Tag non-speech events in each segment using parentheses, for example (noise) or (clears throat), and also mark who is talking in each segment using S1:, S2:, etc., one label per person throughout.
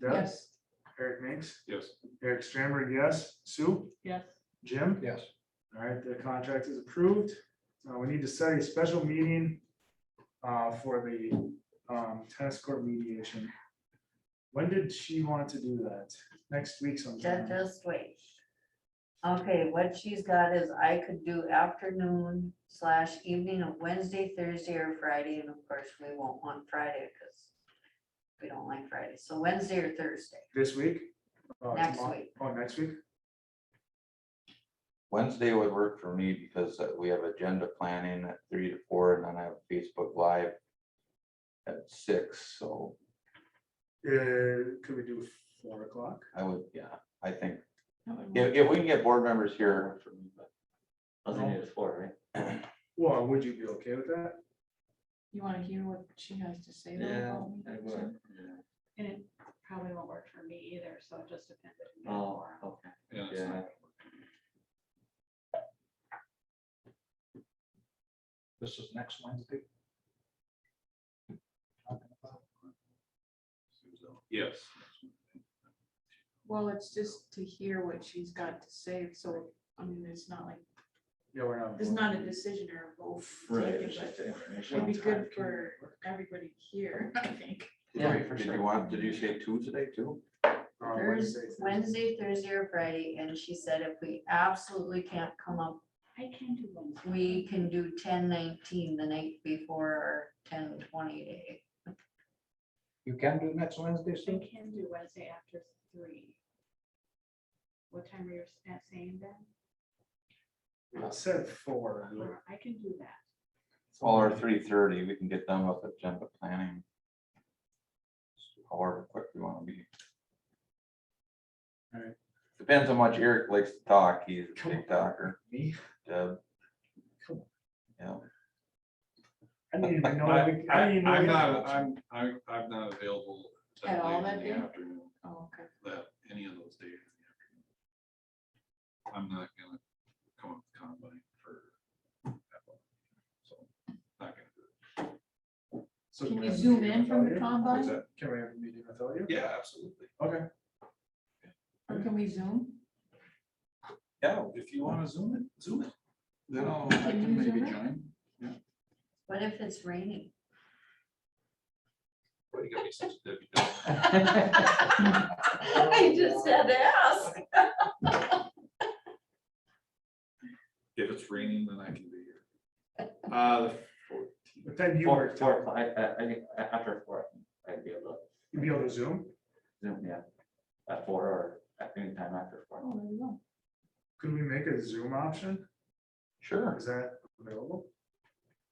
S1: Doug,
S2: Yes.
S1: Eric Minks,
S3: Yes.
S1: Eric Stramberg, yes. Sue,
S2: Yes.
S1: Jim?
S3: Yes.
S1: All right, the contract is approved. Uh, we need to set a special meeting uh, for the um, tennis court mediation. When did she want to do that? Next week
S4: Ju-
S1: sometime?
S4: Just wait. Okay, what she's got is I could do afternoon slash evening of Wednesday, Thursday, or Friday, and of course, we won't want Friday, because we don't like Friday, so Wednesday or Thursday,
S1: This week? Uh,
S4: Next
S1: tomorrow-
S4: week.
S1: Oh, next week?
S5: Wednesday would work for me because uh, we have agenda planning at three to four and then I have Facebook Live at six, so
S1: Uh, could we do four o'clock?
S5: I would, yeah, I think, if, if we can get board members here.
S6: I think it's four, right? (clears throat)
S1: Well, would you be okay with that?
S2: You wanna hear what she has to say? though about me? And it probably won't work for me either, so it just depends. on the
S6: Oh,
S2: forum.
S6: okay,
S3: Yeah. it's
S6: yeah.
S3: not- This is next Wednesday? Yes.
S2: Well, it's just to hear what she's got to say, so, I mean, it's not like,
S1: Yeah, we're not.
S2: it's not a decision or a vote. taken, but It'd be good for everybody here, (laughs) I think.
S6: Yeah,
S5: Did you want, did you say Tuesday too?
S1: Uh,
S4: Thursday,
S1: Wednesday.
S4: Wednesday, Thursday, or Friday, and she said if we absolutely can't come up,
S2: I can do Wednesday.
S4: we can do ten nineteen the night before, or ten twenty day.
S3: You can do next Wednesday,
S2: I
S3: Sue?
S2: can do Wednesday after three. What time are you s- saying then?
S1: It Said four.
S2: Or I can do that.
S5: Or three thirty, we can get done with agenda planning. However quick we wanna be.
S1: Alright.
S5: Depends how much Eric likes to talk, he's a big talker,
S1: Me?
S5: Deb.
S1: Come
S5: Yeah.
S1: I didn't even know.
S3: I,
S1: we- I didn't
S3: I'm
S1: even know we had
S3: not,
S1: that option.
S3: I'm, I'm, I'm not available. that
S2: At all
S3: late in
S2: that
S3: the
S2: day?
S3: Afternoon,
S2: Oh, okay.
S3: that, any of those days. in the afternoon. I'm not gonna come up with combine for. that one, So, not gonna do it.
S1: So
S2: Can
S1: we
S2: you
S1: have a
S2: zoom
S1: meeting
S2: in from
S1: without
S2: the
S1: you?
S2: combine?
S3: What's that?
S1: Can we have a meeting without you?
S3: Yeah, absolutely.
S1: Okay.
S2: Or can we zoom?
S3: Yeah, if you wanna zoom it, zoom it. Then I'll, I
S2: Can you
S3: can maybe
S2: zoom it?
S3: join.
S4: What if it's raining? (laughs)
S3: Why you gotta be such a debutante?
S4: I just had to ask.
S3: If it's raining, then I can be here.
S2: (laughs)
S3: Uh, the fourteenth,
S1: What time do you
S6: Four,
S1: work?
S6: four,
S1: till?
S6: o'clock, I, I, I, think a- after four, I think I'd be able
S1: You be able to zoom?
S6: to zoom, yeah. At four or at any time after four.
S2: Oh, there you go.
S1: Could we make a Zoom option?
S5: Sure,
S1: Is that available?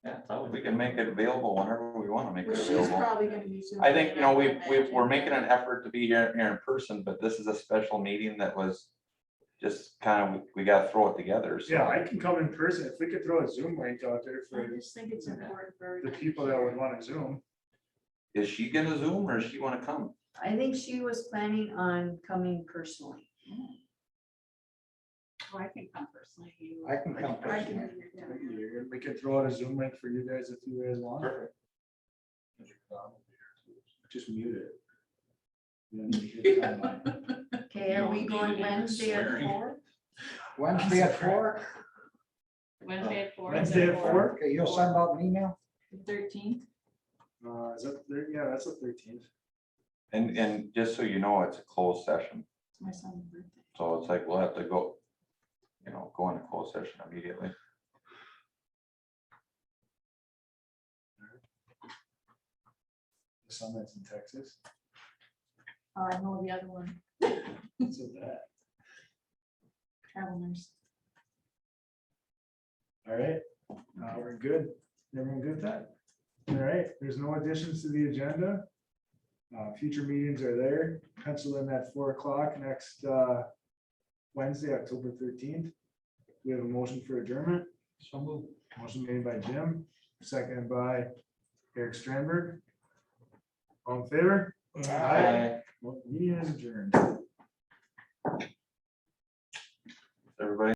S6: Yeah, it's always.
S5: we can make it available whenever we wanna make
S2: Well,
S5: it
S2: she's
S5: available.
S2: probably gonna be zooming.
S5: I think, you know, we,
S2: in
S5: we, we're
S2: and-
S5: making an effort to be here, here in person, but this is a special meeting that was just kind of, we gotta throw it together, so.
S1: Yeah, I can come in person. If we could throw a Zoom link out there
S2: I
S1: for
S2: just think it's important for.
S1: the
S2: everybody
S1: people that
S2: to
S1: would want to Zoom.
S5: Is she gonna Zoom or does she wanna come?
S4: I think she was planning on coming personally.
S2: hear. Well, Oh, I can come personally. you-
S3: I can come
S2: I can
S3: personally.
S2: do that, yeah.
S1: We could throw out a Zoom link for you guys if you guys want. Just mute it. Then we
S2: (laughs)
S1: hit timeline.
S4: Okay, are we
S3: You don't need to
S4: going
S3: hear
S4: Wednesday at
S3: swearing.
S4: four?
S7: Wednesday at four?
S2: Wednesday at four.
S1: Wednesday at four?
S7: Okay, you'll send out an email?
S2: Thirteenth,
S1: Uh, is that, thir- yeah, that's the thirteenth.
S5: And, and just so you know, it's a closed session,
S2: it's my son's birthday.
S5: so it's like, we'll have to go, you know, go into closed session immediately.
S1: The sun that's in Texas.
S2: Oh, I know the other one,
S1: So that,
S2: travel nurse.
S1: all right, uh, we're good. Everyone good with that? All right, there's no additions to the agenda. Uh, future meetings are there. Pencil in at four o'clock next, uh, Wednesday, October thirteenth. We have a motion for adjournment.
S3: So move.
S1: Motion made by Jim, seconded by Eric Stramberg. All in favor? Well, Meeting is adjourned.
S5: Everybody